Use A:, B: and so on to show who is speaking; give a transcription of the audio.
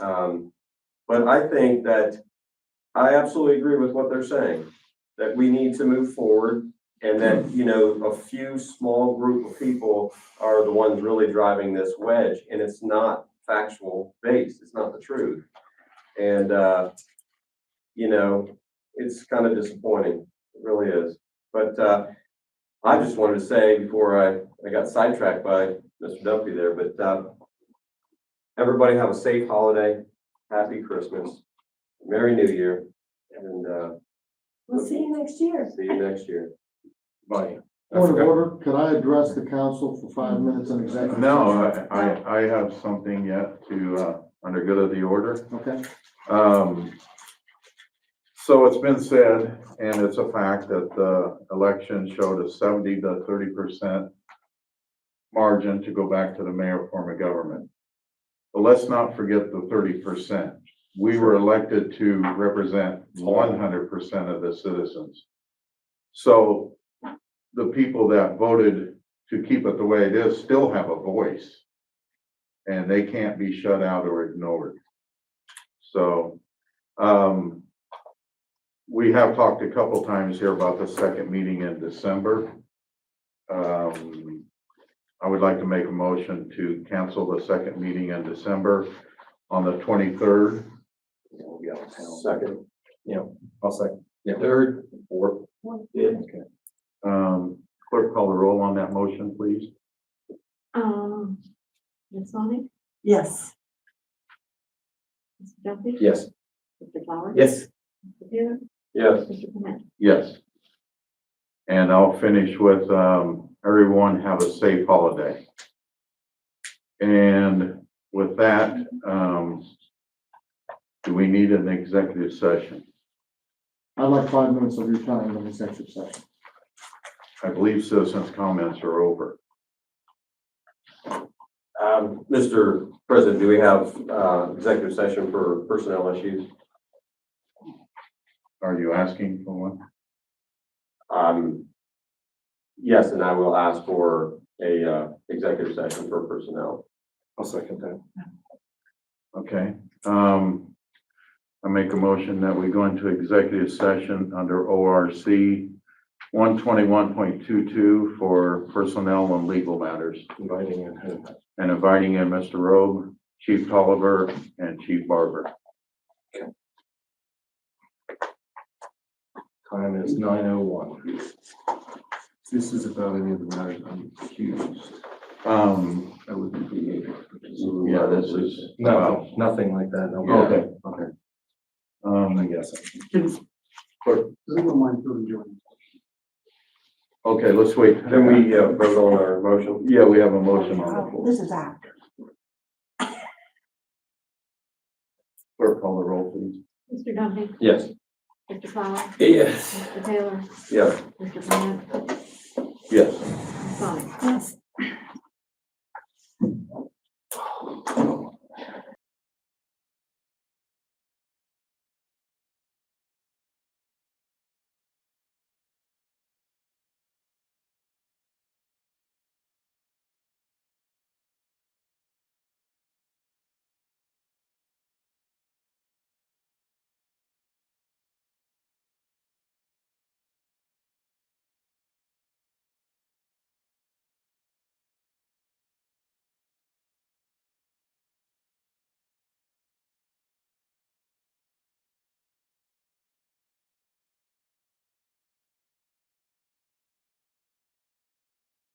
A: Um, but I think that I absolutely agree with what they're saying, that we need to move forward. And that, you know, a few small group of people are the ones really driving this wedge and it's not factual based. It's not the truth. And, uh, you know, it's kind of disappointing. It really is. But, uh, I just wanted to say before I, I got sidetracked by Mr. Duffy there, but, uh, everybody have a safe holiday, happy Christmas, Merry New Year, and, uh,
B: We'll see you next year.
A: see you next year. Bye.
C: Point of order, could I address the council for five minutes in executive?
D: No, I, I, I have something yet to, uh, under good of the order.
C: session? Okay,
D: Um, so it's been said, and it's a fact that the election showed a seventy to thirty percent margin to go back to the mayor form of government. But let's not forget the thirty percent. We were elected to represent one hundred percent of the citizens. So the people that voted to keep it the way it is still have a voice. And they can't be shut out or ignored. So, um, we have talked a couple times here about the second meeting in December. Um, I would like to make a motion to cancel the second meeting in December on the twenty-third.
A: Second. Yeah, I'll second. Yeah.
D: Third. Fourth.
A: Yeah.
D: Um, clerk call the roll on that motion, please.
E: Um, Ms. Sonic,
B: Yes.
E: Mr. Duffy?
A: Yes.
E: Mr. Flowers?
A: Yes.
E: Mr. Taylor?
A: Yes.
E: Mr. Clement?
D: Yes. And I'll finish with, um, everyone have a safe holiday. And with that, um, do we need an executive session?
C: I'd like five minutes of your time in executive session.
D: I believe citizens' comments are over.
A: Um, Mr. President, do we have, uh, executive session for personnel issues?
D: Are you asking for one?
A: Um, yes, and I will ask for a, uh, executive session for personnel. I'll second that.
D: Okay, um, I make a motion that we go into executive session under ORC one twenty-one point two-two for personnel and legal matters.
A: Inviting in.
D: and inviting in Mr. Robe, Chief Tolliver, and Chief Barber.
A: Time is nine oh one.
F: This is about any of the matters I'm accused,
D: Um,
F: I would be.
D: yeah, this is.
F: Nothing, nothing like that, no.
D: Okay.
F: Okay. I
D: Um,
F: guess.
C: Anyone mind doing joint?
D: okay, let's wait.
A: Can we, uh, vote on our motion?
D: Yeah, we have a motion on the floor.
B: Oh, This is after.
D: Clerk, call the roll, please.
E: Mr. Duffy?
A: Yes.
E: Mr. Flowers?
A: Yes.
E: Mr. Taylor?
A: Yes.
E: Mr. Clement?
D: Yes.
E: Ms. Sonic?
B: Yes.